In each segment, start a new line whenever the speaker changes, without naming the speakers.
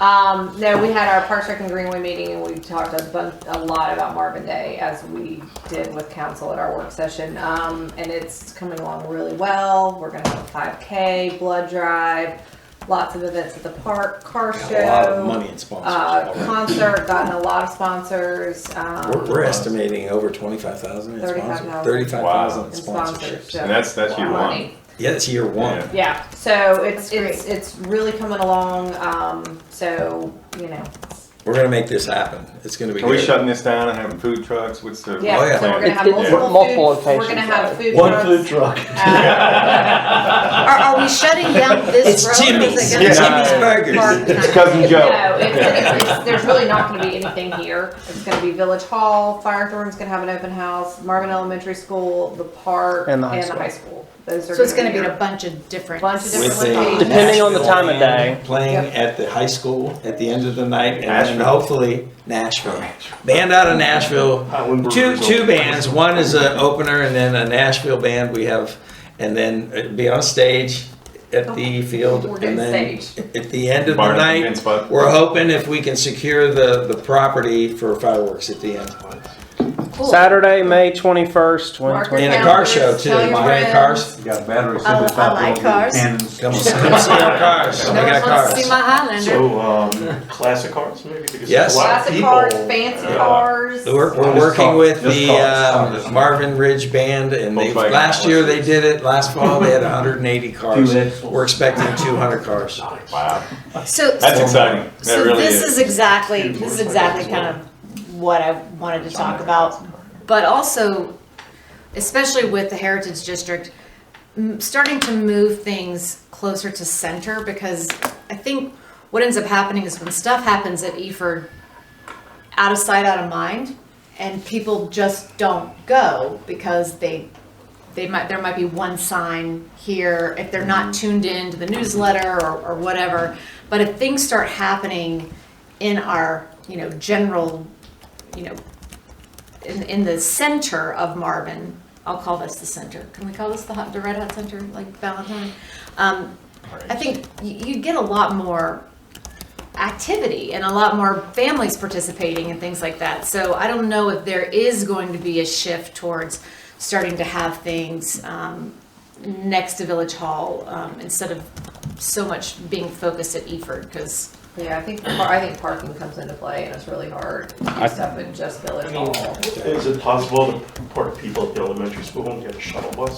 Um, no, we had our Parks Rec and Greenway meeting and we talked a bunch, a lot about Marvin Day as we did with council at our work session. Um, and it's coming along really well. We're gonna have a five K, blood drive, lots of events at the park, car
Got
show.
A lot of money in sponsors
Uh,
already.
concert, gotten a lot of sponsors, um,
We're, we're estimating over twenty-five thousand in sponsors,
35,000.
thirty-five thousand in
and sponsors,
sponsorships.
so.
And that's, that's year one.
Money.
Yeah, it's year one.
Yeah.
Yeah, so it's,
That's great.
it's, it's really coming along, um, so, you know,
We're gonna make this happen. It's gonna be
Are we
good.
shutting this down and having food trucks? What's the?
Oh, yeah.
yeah, so we're gonna have
It's- it's
multiple
multiple
food, we're gonna
locations,
have
right?
food
One food
trucks.
truck.
uh,
Are, are we shutting down this
It's
road?
Jimmy's.
Is it
Yeah.
gonna
Jimmy's
Jimmy's
be parked
Burgers.
and-
It's cousin
No,
Joe.
it's, it's, it's, there's really not gonna be anything here, it's gonna be Village Hall, Firethorn's gonna have an open house, Marvin Elementary School, the park, and the high school. Those are
So it's gonna be in
your-
a bunch of different.
Bunch of
With
different
a
locations.
Depending on the time of
Nashville
day.
band Playing at the high school at the end of the night and then
Nashville.
hopefully Nashville. Band out of Nashville.
Highland
Two,
Burgers
two
open.
bands. One is an opener and then a Nashville band we have, and then it'd be on stage at the field.
We're
and
doing
then
stage.
At the end of the
Barn at the
night,
men's spot.
we're hoping if we can secure the, the property for fireworks at the end.
Cool.
Saturday, May 21st, 2020.
And a car show too.
Tell your
Grand
friends.
cars.
You got batteries.
I- I like cars.
Cannons.
Come on, come see our cars. We
No one
got
wants to
cars.
see my Highlander.
So, um, classic cars maybe? Because there's
Yes.
a lot of
Classic
people-
cars, fancy
Yeah.
cars.
We're, we're
Just
working
call-
with
just
the
call it cars.
um, Marvin Ridge Band and they,
Volkswagen
last year they
Atlases.
did it, last fall they had hundred and eighty cars.
axles.
We're expecting two hundred cars.
Wow,
So,
that's exciting. That
so
really
this
is.
is exactly, this is exactly kind of what I wanted to talk about. But also, especially with the Heritage District, m- starting to move things closer to center because I think what ends up happening is when stuff happens at Eford, out of sight, out of mind, and people just don't go because they they might there might be one sign here if they're not tuned in to the newsletter or, or whatever. But if things start happening in our you know general you know in, in the center of Marvin, I'll call this the center. Can we call this the hot, the Red Hot Center like Valentine? Um, I think you, you get a lot more activity and a lot more families participating and things like that. So I don't know if there is going to be a shift towards starting to have things um, next to Village Hall um, instead of so much being focused at Eford because
Yeah, I think, par- I think parking comes into play and it's really hard to do stuff in just Village Hall.
Is it possible to park people at the elementary school and get a shuttle bus?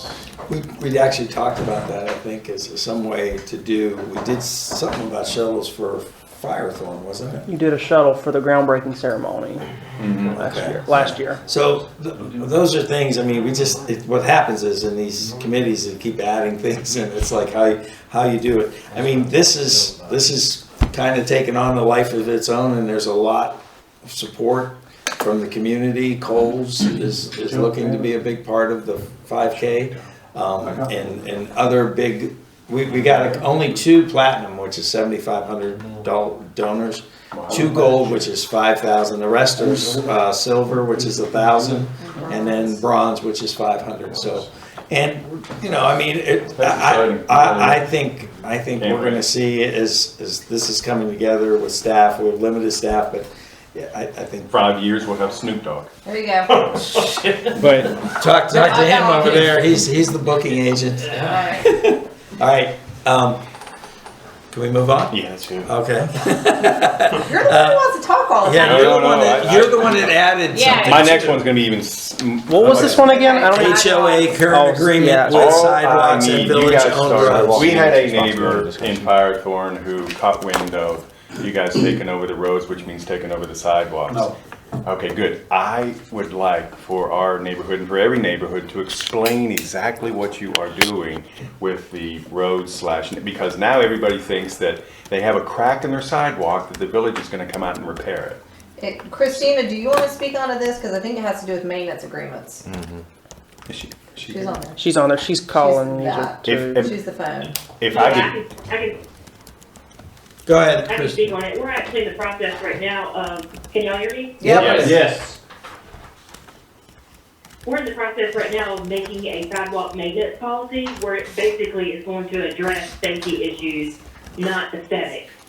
We, we actually talked about that, I think, as some way to do, we did something about shuttles for Firethorn, wasn't it?
You did a shuttle for the groundbreaking ceremony last
Okay.
year. Last year.
So th- those are things, I mean, we just, it, what happens is in these committees, they keep adding things and it's like how, you- how you do it. I mean, this is, this is kind of taken on a life of its own and there's a lot of support from the community. Coles is, is looking to be a big part of the five K. Um, and, and other big, we, we got only two platinum, which is seventy-five hundred donors. Two gold, which is five thousand, the rest are, uh, silver, which is a thousand, and then bronze, which is five hundred, so. And, you know, I mean, it, I, I- I, I think, I think we're gonna see as, as this is coming together with staff, we have limited staff, but yeah, I, I think.
Five years, we'll have Snoop Dogg.
There you go.
But
Talk, talk to him over there, he's, he's the booking agent.
All right.
All right, um, can we move on?
Yeah, that's true.
Okay.
You're the one who wants to talk all the
Yeah,
time.
you're
No,
the
no,
one
no,
that,
I-
you're the one that added
Yeah.
something.
My
to
next
it.
one's gonna be even. s- m-
what was this one again? I don't even.
HOA
Oh,
current
yeah.
agreement with
Oh, I
sidewalks
mean,
and
you
village
guys
owned
started.
roads.
We had a
Responsibility
neighbor in
discussion.
Firethorn who caught wind of you guys taking over the roads, which means taking over the sidewalks.
No.
Okay, good. I would like for our neighborhood and for every neighborhood to explain exactly what you are doing with the road slash, because now everybody thinks that they have a crack in their sidewalk that the village is gonna come out and repair
It-
it.
Eh, Christina, do you want to speak onto this? Because I think it has to do with maintenance agreements.
Is she- she-
She's on there.
She's on there. She's calling
She's
music
that.
too.
If-
She's the phone.
If
Yeah,
I
I
could
can, I can,
Go ahead,
I can
Chris.
speak on it. We're actually in the process right now of, can y'all hear me?
Yes.
Yes.
We're in the process right now of making a sidewalk maintenance policy where it basically is going to address safety issues, not aesthetics.